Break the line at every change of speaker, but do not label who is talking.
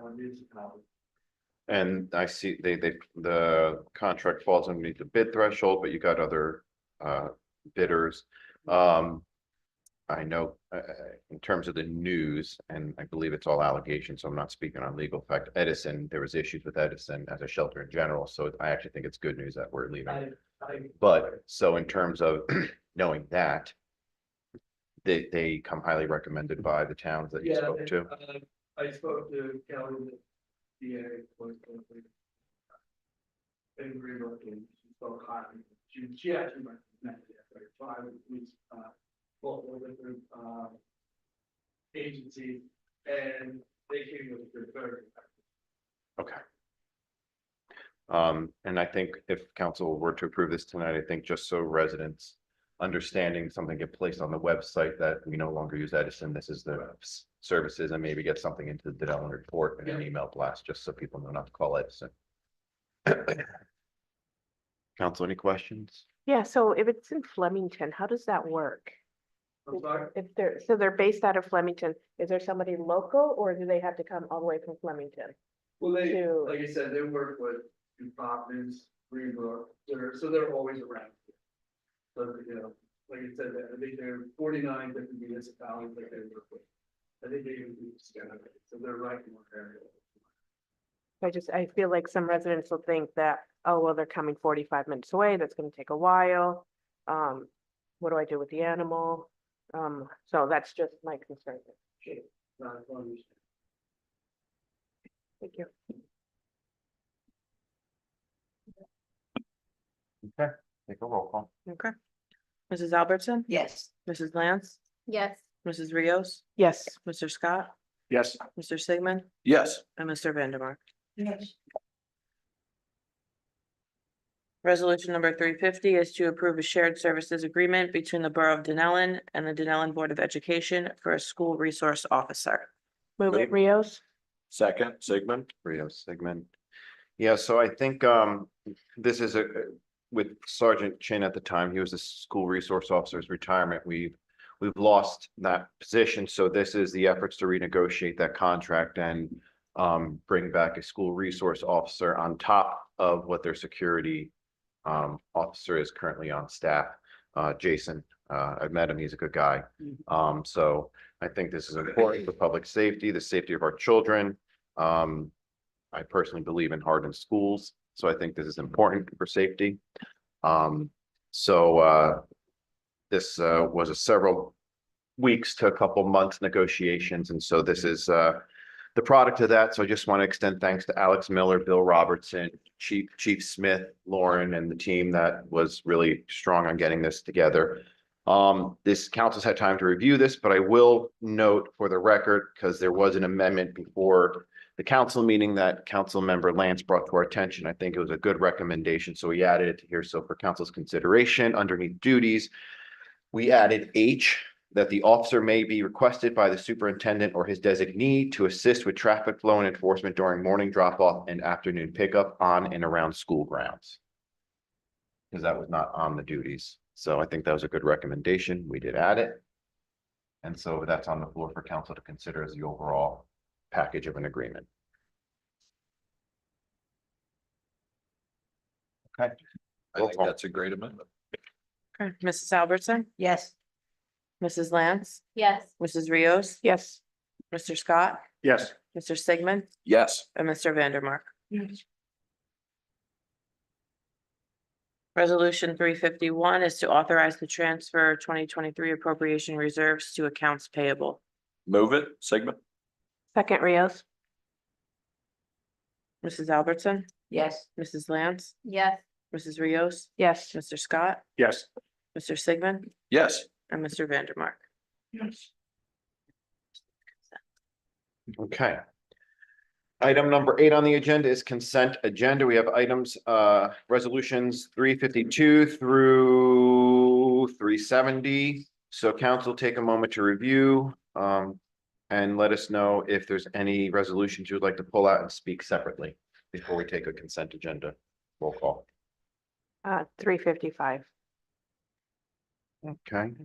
one needs to come.
And I see they, they, the contract falls underneath the bid threshold, but you got other uh bidders. Um. I know, uh, in terms of the news, and I believe it's all allegations, so I'm not speaking on legal fact, Edison, there was issues with Edison as a shelter in general, so I actually think it's good news that we're leaving.
I, I.
But so in terms of knowing that. They, they come highly recommended by the towns that you
Yeah,
spoke
and,
to.
uh, I spoke to Kelly, the DA. was going to- They agree with me, she spoke highly, she, she actually recommended it, but if I was, uh, multiple different, uh. Agencies, and they came with their third.
Okay. Um, and I think if council were to approve this tonight, I think just so residents understanding something get placed on the website that we no longer use Edison, this is the s- services and maybe get something into the Denellen report and an
Yeah.
email blast, just so people know not to call Edison. Council, any questions?
Yeah, so if it's in Flemington, how does that work?
I'm sorry,
If they're, so they're based out of Flemington, is there somebody local or do they have to come all the way from Flemington?
well, they,
Two.
like I said, they work with New Providence, Greenbrook, they're, so they're always around. here. So, you know, like I said, I think there are forty-nine different municipalities that they work with. I think they even do Scandinavia, so they're right in one area.
I just, I feel like some residents will think that, oh, well, they're coming forty-five minutes away, that's gonna take a while. Um, what do I do with the animal? Um, so that's just my concern.
Not as long as-
Thank you.
Take a roll call.
Okay. Mrs. Albertson?
Yes.
Mrs. Lance?
Yes.
Mrs. Rios?
Yes,
Mr. Scott?
Yes.
Mr. Sigmund?
Yes.
And Mr. Vandermark.
Yes.
Resolution number three fifty is to approve a shared services agreement between the Borough of Denellen and the Denellen Board of Education for a school resource officer.
move
Wait.
it, Rios.
Second, Sigmund?
Rio Sigmund. Yeah, so I think um this is a with Sergeant Chin at the time, he was the school resource officer's retirement. We've we've lost that position, so this is the efforts to renegotiate that contract and um bring back a school resource officer on top of what their security um officer is currently on staff. Uh Jason, uh I've met him, he's a good guy. Um so I think this is important for public safety, the safety of our children. Um, I personally believe in hardened schools, so I think this is important for safety. Um, so, uh, this, uh, was a several weeks to a couple months negotiations, and so this is, uh, the product of that. So I just want to extend thanks to Alex Miller, Bill Robertson, Chief, Chief Smith, Lauren, and the team that was really strong on getting this together. Um, this council's had time to review this, but I will note for the record, because there was an amendment before the council meeting that council member Lance brought to our attention. I think it was a good recommendation, so we added it here. So for council's consideration, underneath duties, we added H, that the officer may be requested by the superintendent or his designee to assist with traffic flow and enforcement during morning drop-off and afternoon pickup on and around school grounds. Because that was not on the duties. So I think that was a good recommendation. We did add it. And so that's on the floor for council to consider as the overall package of an agreement. Okay.
I think that's a great amendment.
Okay. Mrs. Albertson?
Yes.
Mrs. Lance?
Yes.
Mrs. Rios?
Yes,
Mr. Scott?
Yes.
Mr. Sigmund?
Yes.
And Mr. Vandermark. Resolution three fifty-one is to authorize the transfer twenty twenty-three appropriation reserves to accounts payable.
Move it, Sigmund?
second Rios.
Mrs. Albertson,
Yes.
Mrs. Lance,
Yes.
Mrs. Rios,
Yes,
Mr. Scott,
Yes.
Mr. Sigmund,
Yes.
and Mr. Vandermark.
Okay. Item number eight on the agenda is consent agenda. We have items, uh, resolutions three fifty-two through three seventy. So council, take a moment to review, um, and let us know if there's any resolutions you would like to pull out and speak separately before we take a consent agenda. Roll call.
uh, three fifty-five.
Okay,